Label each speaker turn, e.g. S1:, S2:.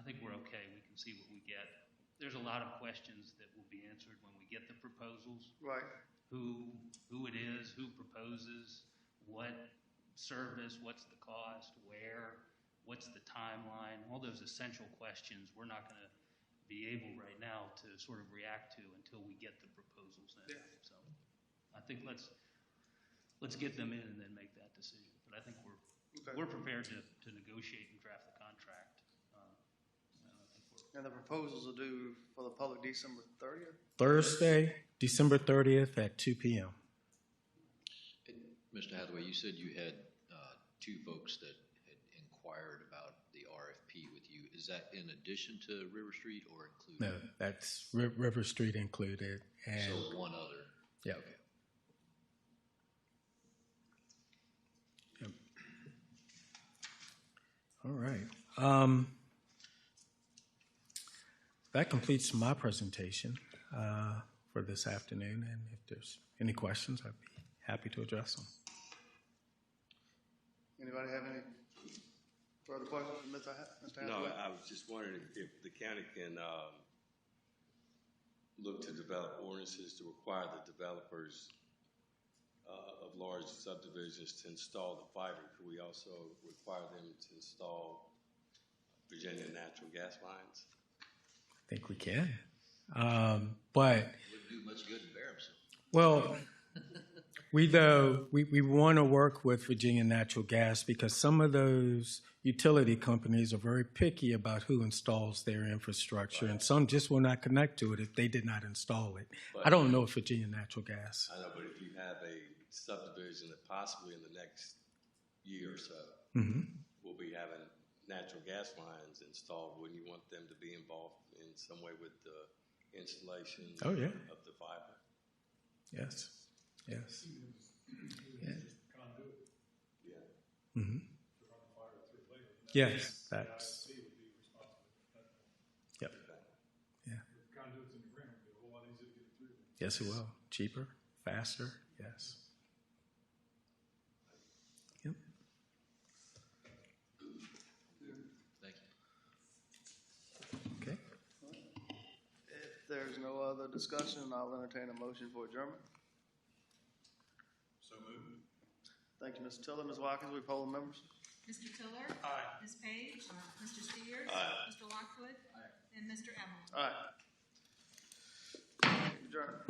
S1: okay, we can see what we get. There's a lot of questions that will be answered when we get the proposals,
S2: Right,
S1: who, who it is, who proposes, what service, what's the cost, where, what's the timeline, all those essential questions, we're not gonna be able right now to sort of react to until we get the proposals in.
S2: Yeah.
S1: So I think let's, let's get them in and then make that decision. But I think we're,
S2: okay.
S1: we're prepared to, to negotiate and draft the contract. Uh, and I think we're-
S2: And the proposals are due for the public December thirtieth?
S3: Thursday, December 30th at 2 p.m.
S4: And Mr. Hathaway, you said you had uh, two folks that had inquired about the RFP with you. Is that in addition to River Street or
S3: No,
S4: included?
S3: that's Ri- River Street included. And
S4: So one other.
S3: yeah, all right. Um, that completes my presentation uh, for this afternoon. And if there's any questions, I'd be happy to address them.
S2: Anybody have any further questions, for Mr. Ha- Mr.
S5: No,
S2: Hathaway?
S5: I was just wondering if the county can, um, look to develop ordinances to require the developers, uh, of large subdivisions to install the fiber. Could we also require them to install Virginia natural gas lines?
S3: I think we can. Um, but
S4: Wouldn't do much good in Barramshill.
S3: Well, we though, we, we want to work with Virginia Natural Gas because some of those utility companies are very picky about who installs their infrastructure, and some just will not connect to it if they did not install it. I don't know if Virginia Natural Gas.
S5: I know, but if you have a subdivision that possibly in the next year or so
S3: Mhm.
S5: will be having natural gas lines installed, wouldn't you want them to be involved in some way with the installation?
S3: Oh, yeah.
S5: Of the fiber?
S3: Yes, yes.
S5: Yeah.
S3: Mhm. Yes, that's. Yep. Yeah. Yes, it will. Cheaper, faster, yes. Yep.
S4: Thank you.
S3: Okay.
S2: If there's no other discussion, I'll entertain a motion for adjournment. So moved. Thank you, Mr. Tiller. Ms. Watkins, we poll the members.
S6: Mr. Tiller? Ms. Page? Mr. Steers? Mr. Lockwood? And Mr. Allen?
S2: All right. Adjourned.